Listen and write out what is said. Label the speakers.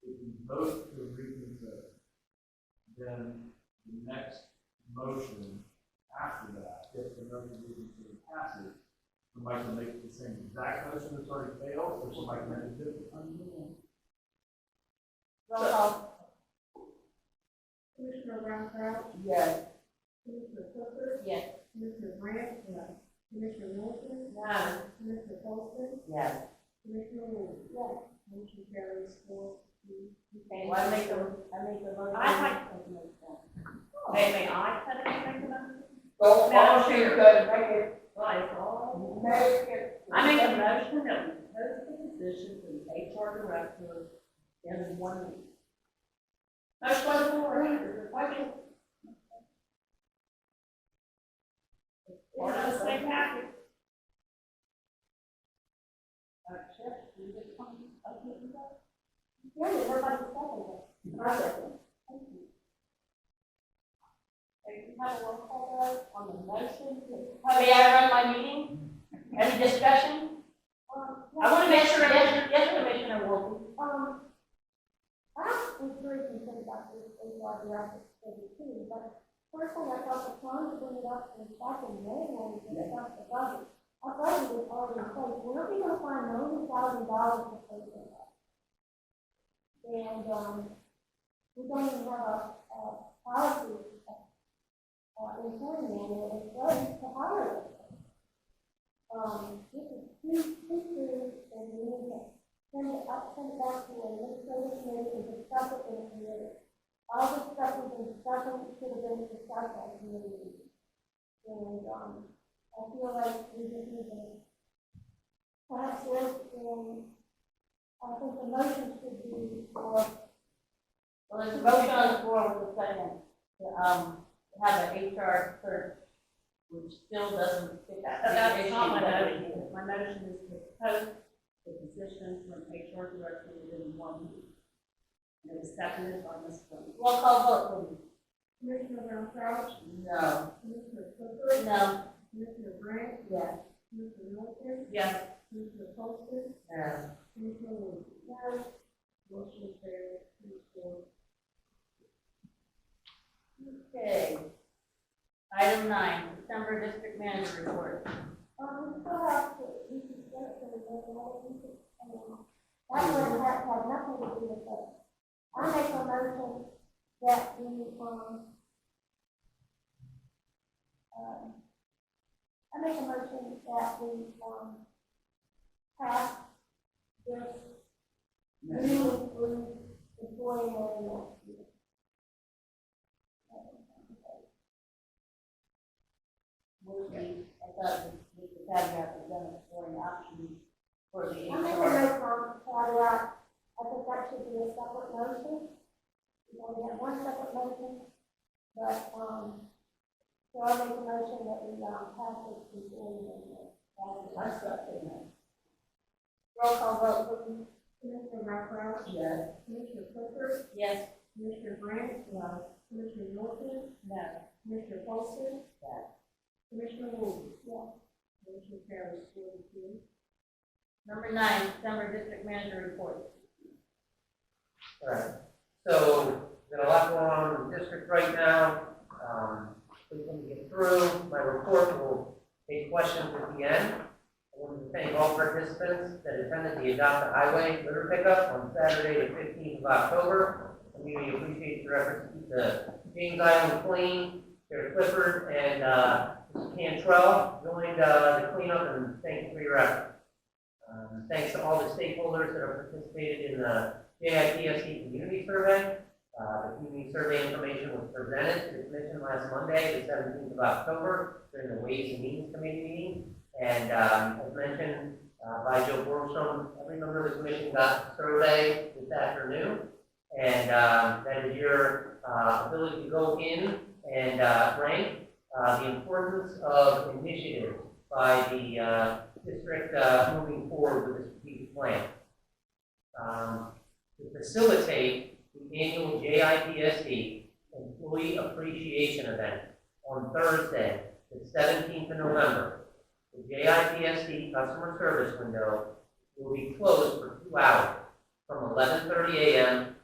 Speaker 1: vote to agree with the, then the next motion after that, if the motion is to pass it, somebody can make the same exact motion that's already failed, or somebody can make a different. one.
Speaker 2: Roll call.
Speaker 3: Commissioner Brown Crouch,
Speaker 2: Yes.
Speaker 3: Commissioner Clifford,
Speaker 2: Yes.
Speaker 3: Commissioner Grant, Commissioner Wilson,
Speaker 2: No.
Speaker 3: Commissioner Colston,
Speaker 2: Yes.
Speaker 3: Commissioner Wood. Yes. Motion carries four to
Speaker 2: Okay, well, I make a, I make a motion. I Wait, wait, I said I make a motion?
Speaker 4: Go
Speaker 2: Madam
Speaker 4: on, you
Speaker 2: Chair.
Speaker 4: could make it,
Speaker 2: Well, it's all.
Speaker 4: make it.
Speaker 2: I make a motion that we post the position for the HR director in one week. Motion by the board, is it second? Part of the same package. Uh, Chip, you just come up here and go? Yeah, we're about to settle this. Thank you. Thank you, have a roll call vote on the motion.
Speaker 4: Honey, I run my meeting, any discussion? I want to make sure, yes, yes, Commissioner Wolf.
Speaker 3: Um, I was very concerned about this AR graphic study too, but personally, I thought the time to bring it up was back in May when we discussed the budget. Our budget was already in place, we're not gonna find ninety thousand dollars to pay for that. And, um, we don't even have a, a policy, uh, employee manual in place to hire them. Um, this is too, too soon, and we need to send it up, send it back to the legislative committee and discuss it in the committee. All the stuff we've been discussing should have been discussed at the committee meeting. And, um, I feel like we just need to perhaps look in, I think the motion should be for,
Speaker 4: Well, there's a motion on the floor with a second, to, um, have an HR search, which still doesn't fit that.
Speaker 2: That's not my
Speaker 4: issue.
Speaker 2: motion. My motion is to post the position for an HR director within one week. And it was seconded by Ms. Flynn.
Speaker 4: Roll call vote,
Speaker 3: Commissioner Brown Crouch,
Speaker 4: please. No.
Speaker 3: Commissioner Clifford,
Speaker 4: No.
Speaker 3: Commissioner Grant,
Speaker 4: Yes.
Speaker 3: Commissioner Wilkins,
Speaker 2: Yes.
Speaker 3: Commissioner Poston,
Speaker 4: No.
Speaker 3: Commissioner Wood. Yes. Motion carries three four
Speaker 4: Okay. Item nine, December district manager report.
Speaker 3: Um, we still have to, we um, can get it for the regular meeting, um, that one has, has nothing to do with this. I make a motion that we, um, um, I make a motion that we, um, pass this new, new employee manual.
Speaker 4: Would be, I thought we could have that presented for an option for the
Speaker 3: I make a
Speaker 4: HR.
Speaker 3: motion on Shadrach, I think that should be a separate motion. You know, we have one separate motion, but, um, so I make a motion that we, um, pass this before we make it.
Speaker 4: I second that.
Speaker 3: Roll call vote, please. Commissioner Raphael,
Speaker 4: Yes.
Speaker 3: Commissioner Clifford,
Speaker 4: Yes.
Speaker 3: Commissioner Grant, Commissioner Norton,
Speaker 4: No.
Speaker 3: Commissioner Polson.
Speaker 4: Yes.
Speaker 3: Commissioner Wood. Yes. Motion carries four to two.
Speaker 4: Number nine, December district manager report.
Speaker 5: Right, so, got a lot going on in the district right now, um, please let me get through, my report will take questions at the end. I want to thank all participants that attended the Adopt a Highway litter pickup on Saturday, the fifteenth of October. I really appreciate your efforts to keep the James Island clean, Sarah Clifford and, uh, Mr. Cantrell joined, uh, the cleanup, and thank you for your efforts. Um, thanks to all the stakeholders that have participated in the JIPSC E Community Survey. Uh, The community survey information was presented to the commission last Monday, the seventeenth of October, during the Ways and Means Committee meeting. And um, as mentioned uh, by Joe Borstrom, every member of the commission got the survey this afternoon. And um, that is your uh, ability to go in and uh, rank uh, the importance of initiatives by the uh, district uh, moving forward with the strategic plan. Um, to facilitate the annual JIPSD Employee Appreciation Event on Thursday, the seventeenth of November. The JIPSD customer service window will be closed for two hours, from eleven thirty AM